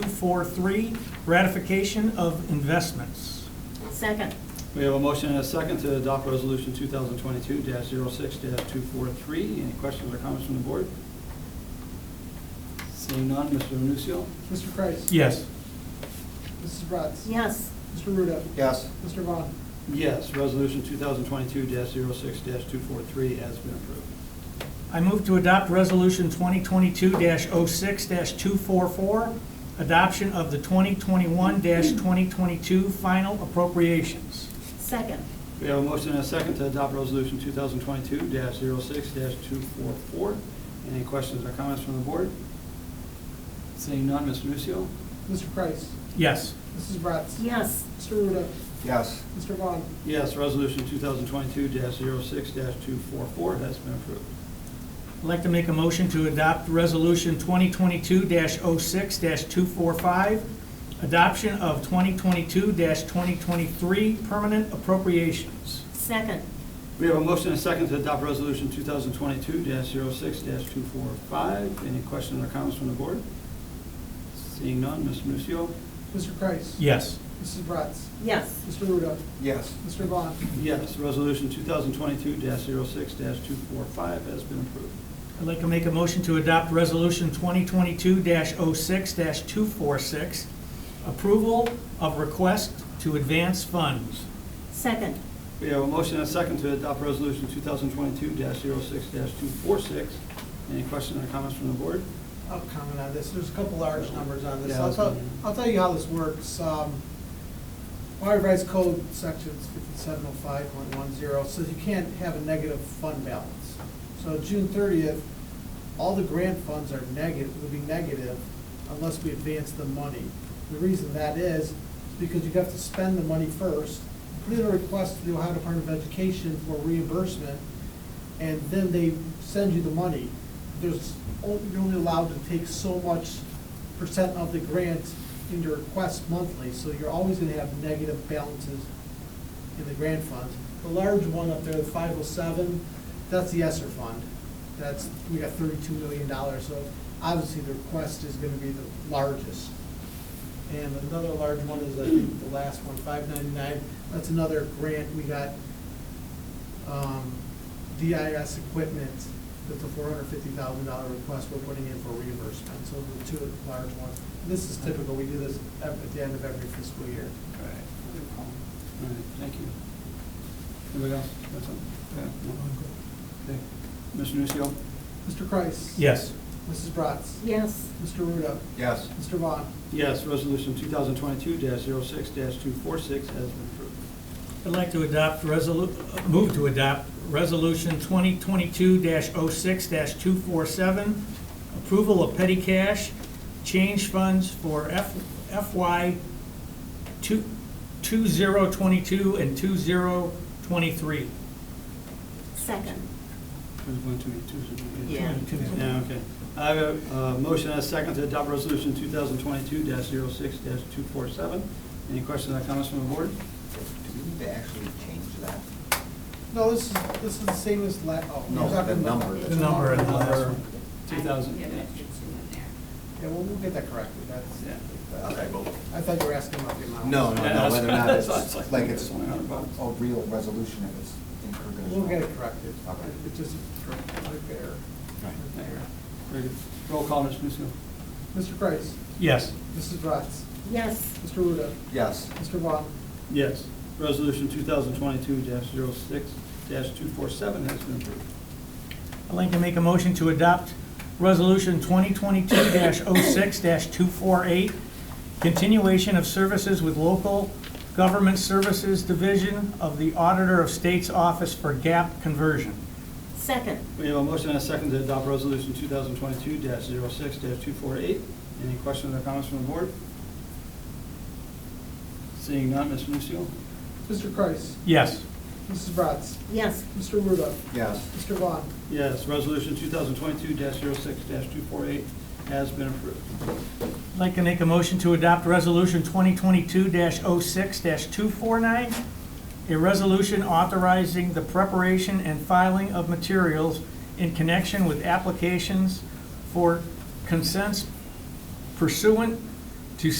two-four-three, ratification of investments. Second. We have a motion and a second to adopt Resolution 2022-06-243. Any questions or comments from the board? Seeing none, Mr. Nusio. Mr. Kreis. Yes. Mrs. Bratz. Yes. Mr. Ruda. yes, Mr. Vaughn. Yes, Resolution 2022-06-243 has been approved. I move to adopt Resolution 2022-06-244, adoption of the 2021-2022 final appropriations. Second. We have a motion and a second to adopt Resolution 2022-06-244. Any questions or comments from the board? Seeing none, Mr. Nusio. Mr. Kreis. Yes. Mrs. Bratz. Yes. Mr. Ruda. yes, Mr. Vaughn. Yes, Resolution 2022-06-244 has been approved. I'd like to make a motion to adopt Resolution 2022-06-245, adoption of 2022-2023 permanent appropriations. Second. We have a motion and a second to adopt Resolution 2022-06-245. Any questions or comments from the board? Seeing none, Mr. Nucio. Mr. Kreis. Yes. Mrs. Bratz. Yes. Mr. Ruda. yes, Mr. Vaughn. Yes, Resolution 2022-06-245 has been approved. I'd like to make a motion to adopt Resolution 2022-06-246, approval of request to advance funds. Second. We have a motion and a second to adopt Resolution 2022-06-246. Any questions or comments from the board? I'll comment on this. There's a couple large numbers on this. Yeah, I'll tell, that's fine. I'll tell you how this works. Um, Ohio Revised Code Sections 5705.10 says you can't have a negative fund balance. So June 30th, all the grant funds are negative, would be negative unless we advance the money. The reason that is, is because you have to spend the money first, put in a request to the Ohio Department of Education for reimbursement, and then they send you the money. There's, o- you're only allowed to take so much percent of the grant in your request monthly, so you're always gonna have negative balances in the grant funds. The large one up there, the five oh seven, that's the ESSER fund. That's, we got thirty-two million dollars, so obviously the request is gonna be the largest. And another large one is, I think, the last one, five ninety-nine, that's another grant we got um, DIS equipment, that's a four hundred fifty thousand dollar request we're putting in for reimbursement, so the two large ones. This is typical, we do this ev- at the end of every fiscal year. All right. All right, thank you. Anybody else? That's all? Okay. Okay. Mr. Nucio. Mr. Kreis. Yes. Mrs. Bratz. Yes. Mr. Ruda. yes, Mr. Vaughn. Yes, Resolution 2022-06-246 has been approved. I'd like to adopt resolu, uh, move to adopt Resolution 2022-06-247, approval of petty cash, change funds for F- FY two- 2022 and 2023. Second. There's one too many twos. Yeah. Yeah, okay. I have a uh, motion and a second to adopt Resolution 2022-06-247. Any questions or comments from the board? do we need to actually change that? No, this is, this is the same as la, oh. No, we're talking the about- number. The number and the last one. 2000. Yeah, that should zoom in there. Yeah, we'll, we'll get that corrected, that's, Yeah. Okay, well, I thought you were asking about the amount. no, no, no, whether or not That's- that's it's, like it's like- a real resolution if it's included as well. We'll get it corrected. Okay. It's just corrected right there. Right. There you go. Very good. Roll call, Mr. Nusio. Mr. Kreis. Yes. Mrs. Bratz. Yes. Mr. Ruda. Yes, Mr. Vaughn. Yes. Resolution 2022-06-247 has been approved. I'd like to make a motion to adopt Resolution 2022-06-248, continuation of services with local government services division of the Auditor of State's Office for gap conversion. Second. We have a motion and a second to adopt Resolution 2022-06-248. Any questions or comments from the board? Seeing none, Mr. Nusio. Mr. Kreis. Yes. Mrs. Bratz. Yes. Mr. Ruda. yes, Mr. Vaughn. Yes, Resolution 2022-06-248 has been approved. I'd like to make a motion to adopt Resolution 2022-06-249, a resolution authorizing the preparation and filing of materials in connection with applications for consents pursuant